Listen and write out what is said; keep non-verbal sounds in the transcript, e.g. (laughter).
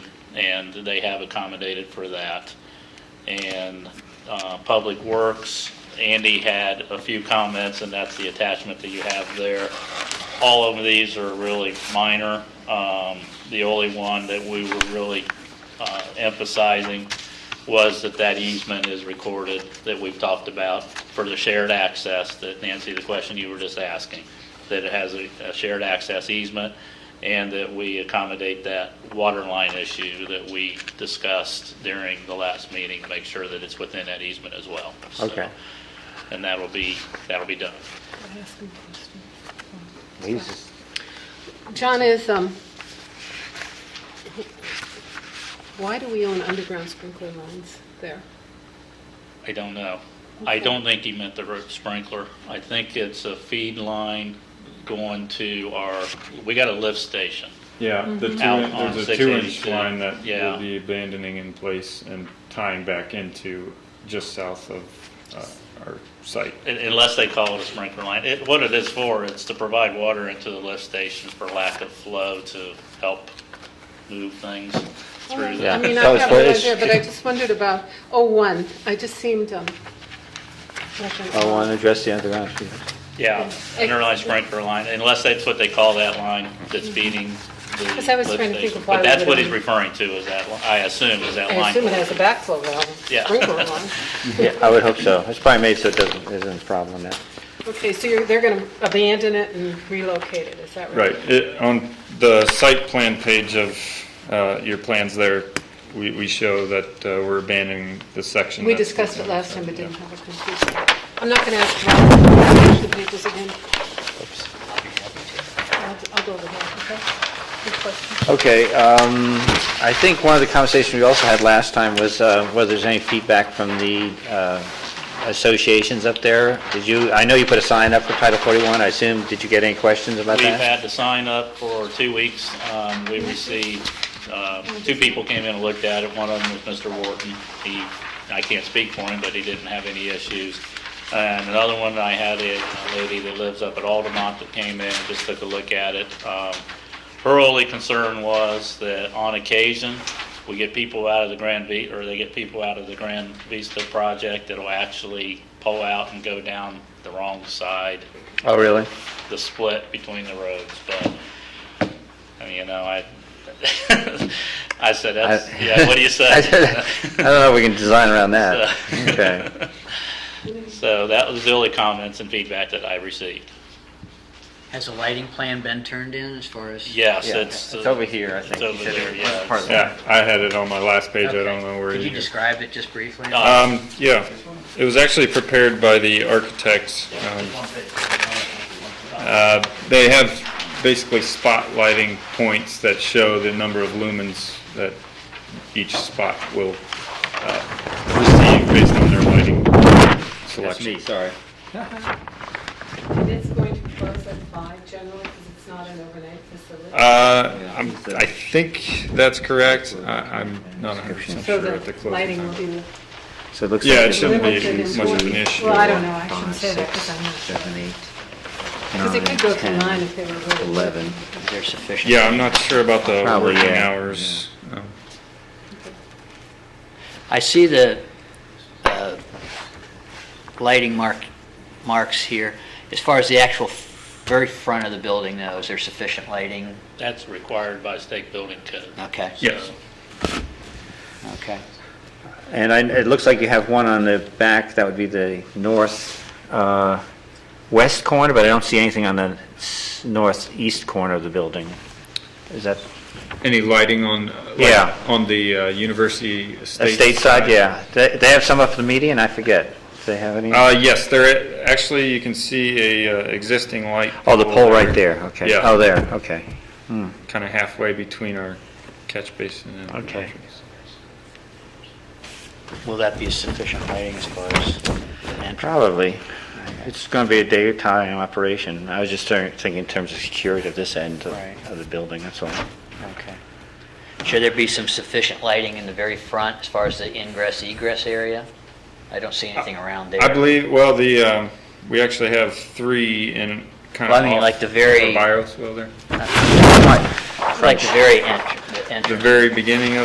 and they have accommodated for that. And uh, Public Works, Andy had a few comments, and that's the attachment that you have there. All of these are really minor. Um, The only one that we were really uh, emphasizing was that that easement is recorded that we've talked about for the shared access that Nancy, the question you were just asking, that it has a a shared access easement and that we accommodate that water line issue that we discussed during the last meeting, make sure that it's within that easement as well. So, Okay. And that'll be, that'll be done. He's just, John is, um, why do we own underground sprinkler lines there? I don't know. I don't think he meant the root sprinkler. I think it's a feed line going to our, we got a lift station. Yeah, Mm-hmm. the two, Out in- on there's a two-inch 682. line that Yeah. we'll be abandoning in place and tying back into just south of uh, our site. Un- Unless they call it a sprinkler line. It, what it is for, it's to provide water into the lift stations for lack of flow to help move things through I there. mean, Yeah. I have no That was- idea, but I just wondered about, oh, one, I just seemed, um, Oh, I want to address the underground. Yeah, underline sprinkler line, unless that's what they call that line that's feeding the lift Mm-hmm. Because I was trying to think station. of why But we that's what would- he's referring to, is that, li- I assume, is that I assume it line. has a backflow valve, Yeah. sprinkler line. (laughs) Yeah, I would hope so. It's probably made so it doesn't, isn't a problem now. Okay, so you're, they're going to abandon it and relocate it, is that right? Right, it, on the site plan page of uh, your plans there, we, we show that uh, we're abandoning the section. We that's discussed it within our last time, site, but yeah. didn't have a conclusion. I'm not going to ask Rob to the papers again. I'll I'll go over that, okay? Good question. Okay, um, I think one of the conversations we also had last time was uh, whether there's any feedback from the uh, associations up there. Did you, I know you put a sign up for Title 41, I assume, did you get any questions about We've that? had the sign up for two weeks. Um, We received, uh, two people came in and looked at it. One of them was Mr. Wharton. He, I can't speak for him, but he didn't have any issues. And another one, I had a a lady that lives up at Altamont that came in and just took a look at it. Um, Her only concern was that on occasion, we get people out of the Grand V, or they get people out of the Grand Vista project that'll actually pull out and go down the wrong side Oh, really? the split between the roads, but, I mean, you know, I, (laughs) I said, that's, I- yeah, (laughs) what do you I said, say? I don't know (laughs) if we can design around that. So- Okay. (laughs) So that was the only comments and feedback that I received. Has a lighting plan been turned in as far as? Yes, Yeah, it's. It's over here, I think. It's over You said there, it was yeah. part of it's- the- Yeah, I had it on my last page, I Okay. don't know where. Could it you is. describe it just briefly? No. Um, yeah, it was actually prepared by the architects. um, uh, They have basically spotlighting points that show the number of lumens that each spot will uh, receive based on their lighting That's me, selection. sorry. And it's going to close at five generally, because it's not an overnight facility. Uh, I'm- I think that's correct. I- I'm not 100% So sure at the the closing lighting time. will be. So it looks like. Yeah, it it's- shouldn't be limited in much of an forty- issue. Well, I don't know, I Five, shouldn't say that, because I'm not. six, seven, eight, Because it nine, could go to 10, nine if they were really. 11. Is there sufficient? Yeah, I'm not sure about the Probably, working yeah. hours. Um, I see the uh, lighting mark, marks here. As far as the actual f- very front of the building though, is there sufficient lighting? That's required by state building code. Okay, Yes. okay. And I, it looks like you have one on the back, that would be the north, uh, west corner, but I don't see anything on the s- northeast corner of the building. Is that, Any lighting on, uh, like, Yeah. on the uh, university estate? estate side, yeah. They, they have some up the median, I forget. Do they have any? Uh, yes, there, actually, you can see a uh, existing light. Oh, the pole right there, okay. Yeah. Oh, there, okay. Hmm. Kind of halfway between our catch basin and. Okay. entrance. Will that be sufficient lighting as far as an entrance? Probably. It's going to be a daytime operation. I was just thinking thinking in terms of security of this end of- Right. of the building, that's all. Okay. Should there be some sufficient lighting in the very front as far as the ingress egress area? I don't see anything around there. I believe, well, the, um, we actually have three in kind of. Well, I mean, like the very- Bios, well, there, Like the very entr- the the entrance. very beginning of